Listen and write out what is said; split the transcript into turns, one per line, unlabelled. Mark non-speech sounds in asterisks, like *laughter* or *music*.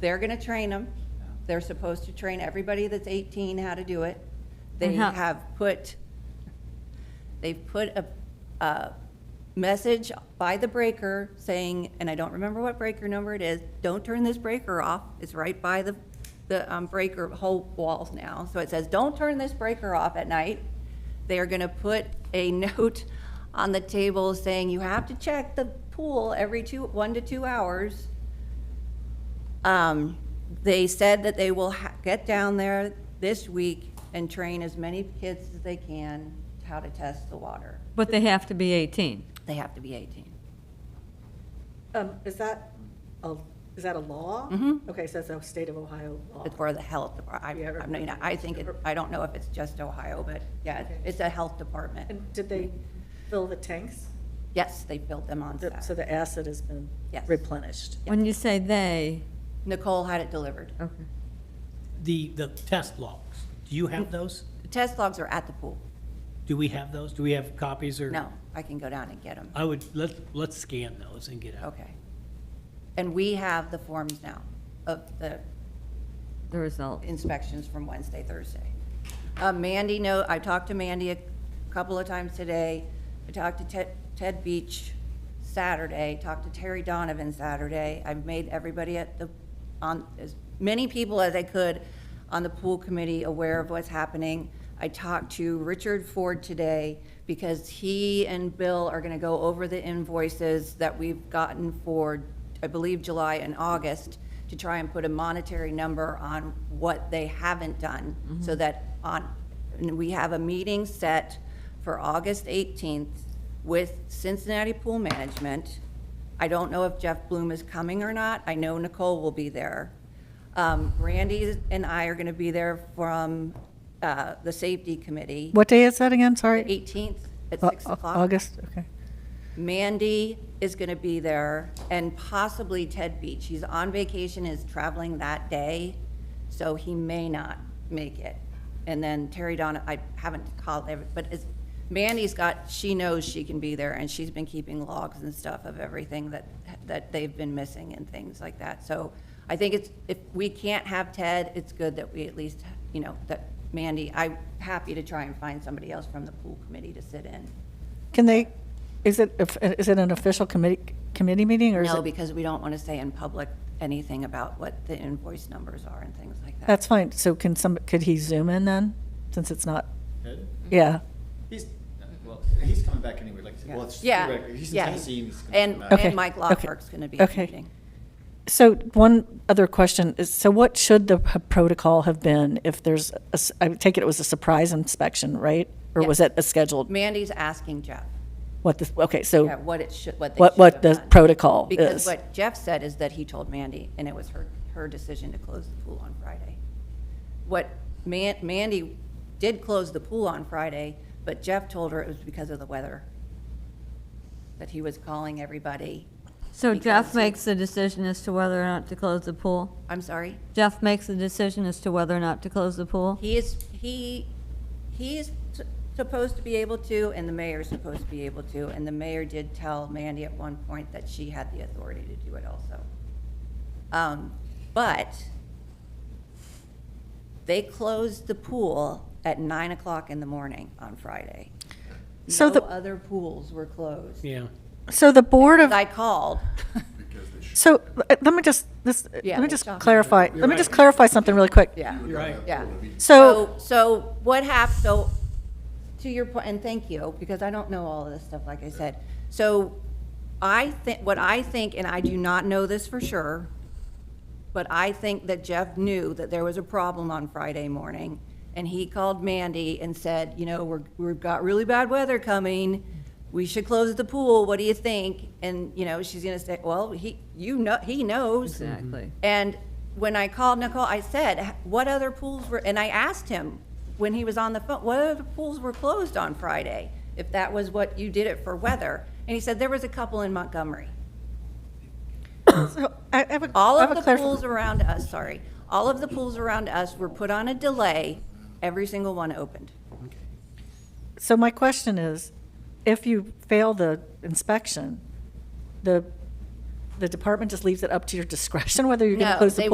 They're gonna train them. They're supposed to train everybody that's eighteen how to do it. They
And how-
have put, they've put a, a message by the breaker saying, and I don't remember what breaker number it is, don't turn this breaker off. It's right by the, the um, breaker whole walls now. So it says, don't turn this breaker off at night. They are gonna put a *laughs* note on the table saying, you have to check the pool every two, one to two hours. Um, They said that they will ha- get down there this week and train as many kids as they can how to test the water.
But they have to be 18.
They have to be 18.
Um, is that a, is that a law? Okay, so it's a state of Ohio law.
Mm-hmm. It's for the health, depar- I,
Yeah,
I
or-
mean, I think, it- I don't know if it's just Ohio, but yeah,
Okay.
it's a health department.
And did they fill the tanks?
Yes, they built them on
The- So
Saturday.
the acid has been
Yes.
replenished?
When you say they,
Nicole had it delivered.
okay.
The, the test logs, do you have those?
The Test logs are at the pool.
Do we have those? Do we have copies or?
No, I can go down and get them.
I would, let, let's scan those and get out.
Okay. And we have the forms now of the
The result.
inspections from Wednesday, Thursday. Uh, Mandy, no, I talked to Mandy a couple of times today. I talked to Ted, Ted Beach Saturday, talked to Terry Donovan Saturday. I've made everybody at the, on, as many people as I could on the pool committee aware of what's happening. I talked to Richard Ford today because he and Bill are gonna go over the invoices that we've gotten for, I believe, July and August to try and put a monetary number on what they haven't done, so that on, and we have a meeting set for August 18th with Cincinnati Pool Management. I don't know if Jeff Bloom is coming or not, I know Nicole will be there. Um, Randy and I are gonna be there from, uh, the Safety Committee,
What day is that again? Sorry?
18th at
Au-
6
au-
o'clock.
August, okay.
Mandy is going to be there, and possibly Ted Beach. He's on vacation, is traveling that day, so he may not make it. And then Terry Donna, I haven't called, every- but is, Mandy's got, she knows she can be there, and she's been keeping logs and stuff of everything that, that they've been missing and things like that. So I think it's, if we can't have Ted, it's good that we at least, you know, that Mandy, I'm happy to try and find somebody else from the pool committee to sit in.
Can they, is it, if- is it an official committee, committee meeting or is
No,
it?
because we don't want to say in public anything about what the invoice numbers are and things like that.
That's fine. So can some, could he zoom in then, since it's not,
Mm-hmm.
yeah?
He's, well, he's coming back anyway, like, well, it's
Yeah,
theoretically, he's in
yeah.
Tennessee and he's gonna come
And,
back.
and
Okay,
Mike
okay,
Lawler's going to be at the
okay.
meeting.
So one other question is, so what should the p- protocol have been if there's, a s- I take it it was a surprise inspection, right? Or was it a scheduled,
Mandy's asking Jeff,
what this, okay,
yeah,
so
what it should, what they
what,
should
what
have
the
done.
protocol
Because
is?
what Jeff said is that he told Mandy, and it was her, her decision to close the pool on Friday. What Man, Mandy did close the pool on Friday, but Jeff told her it was because of the weather. That he was calling everybody.
So
Because
Jeff
he-
makes the decision as to whether or not to close the pool?
I'm sorry?
Jeff makes the decision as to whether or not to close the
Oh.
pool?
He is, he, he is s- supposed to be able to, and the mayor is supposed to be able to, and the mayor did tell Mandy at one point that she had the authority to do it also. Um, But they closed the pool at nine o'clock in the morning on Friday.
So
No
the-
other pools were closed.
Yeah.
So the Board of
I called.
So uh, let me just, this, uh,
Yeah,
let me
it's
just
shocking.
clarify, let me just clarify something really quick.
Yeah.
You're right.
Yeah.
So,
So, so what hap, so, to your point, and thank you, because I don't know all of this stuff, like I said. So I think, what I think, and I do not know this for sure, but I think that Jeff knew that there was a problem on Friday morning, and he called Mandy and said, you know, we're, we've got really bad weather coming, we should close the pool, what do you think? And, you know, she's gonna say, well, he, you know, he knows.
Exactly.
And when I called Nicole, I said, what other pools were, and I asked him when he was on the phone, what other pools were closed on Friday? If that was what you did it for weather. And he said, there was a couple in Montgomery.
so I I have a,
All
I have
of
a
the
clarification.
pools around us, sorry, all of the pools around us were put on a delay. Every single one opened.
So my question is, if you fail the inspection, the, the department just leaves it up to your discretion whether you're going
No,
to close the
they
pool